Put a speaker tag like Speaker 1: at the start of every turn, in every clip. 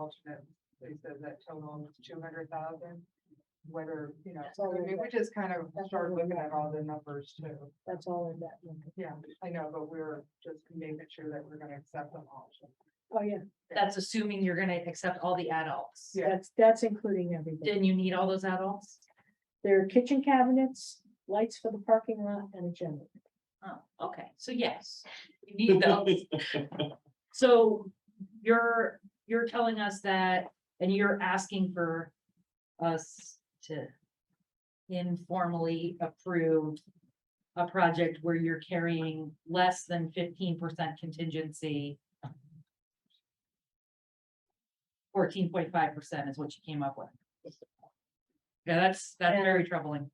Speaker 1: alternate, they said that total is two hundred thousand. Whether, you know,
Speaker 2: That's
Speaker 1: so I
Speaker 2: all
Speaker 1: mean,
Speaker 2: we've
Speaker 1: we just kind of
Speaker 2: That's
Speaker 1: started
Speaker 2: all we've
Speaker 1: looking
Speaker 2: got.
Speaker 1: at all the numbers too.
Speaker 2: That's all in that number.
Speaker 1: Yeah, I know, but we're just making sure that we're gonna accept them all.
Speaker 2: Oh, yeah,
Speaker 3: That's assuming you're gonna accept all the adults.
Speaker 1: Yeah.
Speaker 2: that's, that's including everything.
Speaker 3: Then you need all those adults?
Speaker 2: There are kitchen cabinets, lights for the parking lot and a generator.
Speaker 3: Oh, okay, so yes, you need those. So you're, you're telling us that, and you're asking for us to informally approve a project where you're carrying less than fifteen percent contingency. Fourteen point five percent is what you came up with. Yeah, that's, that's very troubling.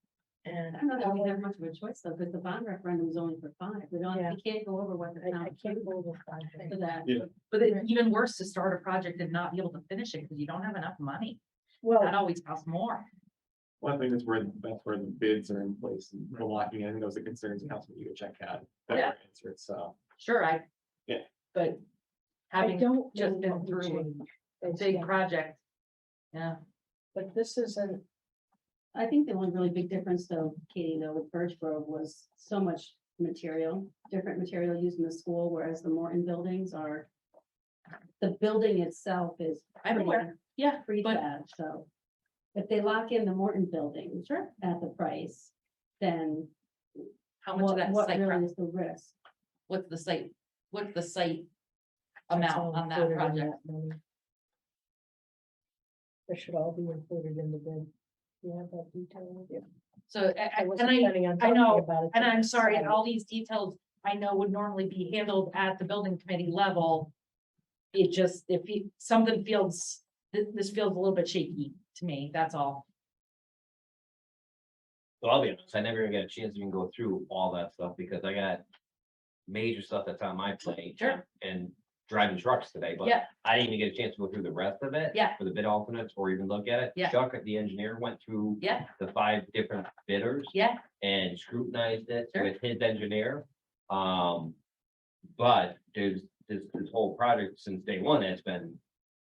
Speaker 2: And
Speaker 4: I don't know that we have
Speaker 2: however,
Speaker 4: much of a choice though, because the bond referendum is only for five. We don't,
Speaker 2: Yeah.
Speaker 4: we can't go over what the
Speaker 2: I, I
Speaker 4: town
Speaker 2: can't
Speaker 4: approved
Speaker 2: go over five.
Speaker 4: for that.
Speaker 5: Yeah.
Speaker 3: But it's even worse to start a project and not be able to finish it because you don't have enough money. That
Speaker 2: Well,
Speaker 3: always costs more.
Speaker 5: One thing that's where, that's where the bids are in place and the locking in, those are concerns Councilman you check out. that
Speaker 3: Yeah.
Speaker 5: were answered, So,
Speaker 3: Sure, I.
Speaker 5: Yeah.
Speaker 3: But
Speaker 2: I
Speaker 3: having
Speaker 2: don't know
Speaker 3: just been
Speaker 2: what would
Speaker 3: through
Speaker 2: change.
Speaker 3: a big project. Yeah,
Speaker 2: But this isn't,
Speaker 4: I think the one really big difference though, Katie, though, with Birch Grove was so much material, different material used in the school, whereas the Morton buildings are. The building itself is.
Speaker 3: I'm aware. Yeah,
Speaker 4: Free
Speaker 3: but-
Speaker 4: so. If they lock in the Morton building. Sure. At the price, then
Speaker 3: how much of
Speaker 4: what,
Speaker 3: that
Speaker 4: what
Speaker 3: site, pro-
Speaker 4: really is the risk?
Speaker 3: what's the site, what's the site
Speaker 2: That's all
Speaker 3: amount on that
Speaker 2: included in
Speaker 3: project?
Speaker 2: that money. That should all be included in the bid. You have that detail? Yeah.
Speaker 3: So, I- I-
Speaker 2: I wasn't
Speaker 3: and I,
Speaker 2: planning on
Speaker 3: I
Speaker 2: talking
Speaker 3: know,
Speaker 2: about it.
Speaker 3: and
Speaker 2: till
Speaker 3: I'm sorry, and
Speaker 2: Saturday.
Speaker 3: all these details I know would normally be handled at the building committee level. It just, if you, something feels, this, this feels a little bit shaky to me, that's all.
Speaker 6: So I'll be honest, I never got a chance to even go through all that stuff because I got major stuff that's on my plate.
Speaker 3: Sure.
Speaker 6: And driving trucks today, but
Speaker 3: Yeah.
Speaker 6: I didn't even get a chance to go through the rest of it.
Speaker 3: Yeah.
Speaker 6: For the bid alternates or even look at it.
Speaker 3: Yeah.
Speaker 6: Chuck, the engineer, went through
Speaker 3: Yeah,
Speaker 6: the five different bidders
Speaker 3: yeah,
Speaker 6: and scrutinized it
Speaker 3: Sure.
Speaker 6: with his engineer. Um, but there's, this, this whole project since day one has been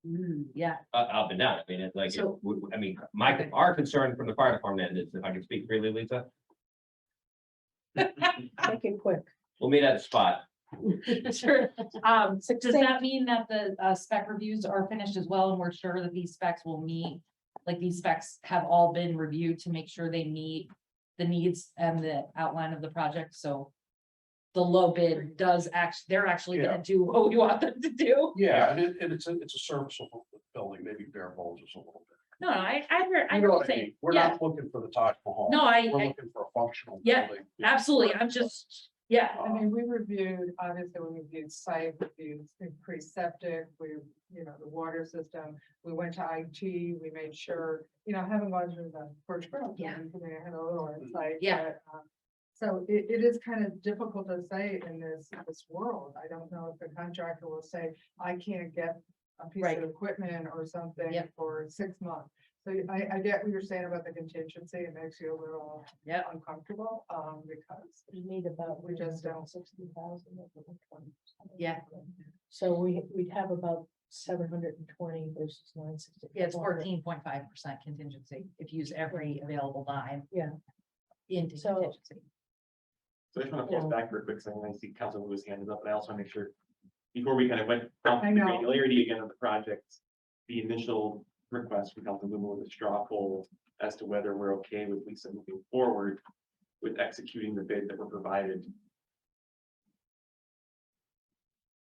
Speaker 3: Mm, yeah,
Speaker 6: uh, up and down. I mean, it's like, it-
Speaker 3: So-
Speaker 6: w- w- I mean, my, our concern from the fire department is, if I can speak freely, Lisa,
Speaker 2: Make it quick.
Speaker 6: We'll meet at a spot.
Speaker 3: sure. Um,
Speaker 2: Six
Speaker 3: does
Speaker 2: things.
Speaker 3: that mean that the uh spec reviews are finished as well and we're sure that these specs will meet? Like these specs have all been reviewed to make sure they meet the needs and the outline of the project, so. The low bid does act, they're actually gonna do what we want them to do.
Speaker 7: Yeah, and it, and it's, a it's a serviceable building, maybe bare bones just a little bit.
Speaker 3: No, I, I heard, I
Speaker 7: You know
Speaker 3: know
Speaker 7: what
Speaker 3: what you're saying,
Speaker 7: mean? We're
Speaker 3: yeah,
Speaker 7: not looking for the Taj Mahal.
Speaker 3: no, I,
Speaker 7: We're
Speaker 3: I,
Speaker 7: looking for a functional
Speaker 3: Yeah,
Speaker 7: building.
Speaker 3: absolutely, I'm just, yeah,
Speaker 1: I mean, we reviewed, obviously, we reviewed site reviews, increased septic, we, you know, the water system. We went to IT, we made sure, you know, having gone through the Birch Grove,
Speaker 3: Yeah.
Speaker 1: thing, I mean, I had a little insight.
Speaker 3: Yeah.
Speaker 1: but, um, So it, it is kind of difficult to say in this, this world. I don't know if the contractor will say, I can't get a piece
Speaker 3: Right.
Speaker 1: of equipment or something
Speaker 3: Yep.
Speaker 1: for six months. So I, I get what you're saying about the contingency. It makes you a little
Speaker 3: yeah,
Speaker 1: uncomfortable, um, because
Speaker 2: We need about.
Speaker 1: We just don't.
Speaker 2: Sixty thousand.
Speaker 3: Yeah.
Speaker 2: So we, we'd have about seven hundred and twenty versus nine sixty.
Speaker 3: Yeah, it's fourteen point five percent contingency if you use every available dime.
Speaker 2: Yeah.
Speaker 3: Into
Speaker 2: So-
Speaker 3: contingency.
Speaker 5: so I just want to pause back for a quick second. I see Councilman Lewis hand is up, and I also want to make sure. Before we kind of went down
Speaker 1: I
Speaker 5: the
Speaker 1: know.
Speaker 5: granularity again of the project, the initial request from Councilman Lumen was a straw poll as to whether we're okay with Lisa moving forward with executing the bid that were provided.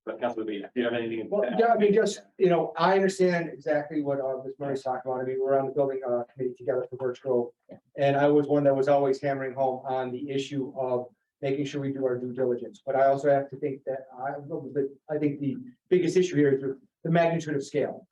Speaker 5: But Councilman Lee, do you have anything? to
Speaker 8: Well,
Speaker 5: add?
Speaker 8: yeah, I mean, just, you know, I understand exactly what, uh, Ms. Murray's talking about. I mean, we're on the building, uh, committee together for Birch Grove. And I was one that was always hammering home on the issue of making sure we do our due diligence. But I also have to think that I, but I think the biggest issue here is the magnitude of scale.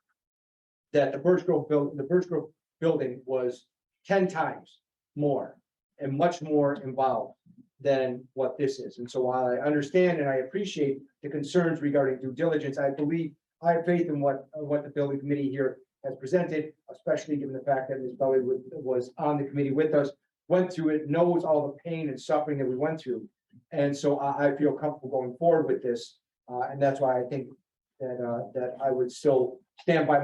Speaker 8: That the Birch Grove built, the Birch Grove building was ten times more and much more involved than what this is. And so while I understand and I appreciate the concerns regarding due diligence, I believe, I have faith in what, uh, what the building committee here has presented, especially given the fact that Ms. Belli was, was on the committee with us, went through it, knows all the pain and suffering that we went through. And so I, I feel comfortable going forward with this, uh, and that's why I think that, uh, that I would still stand by my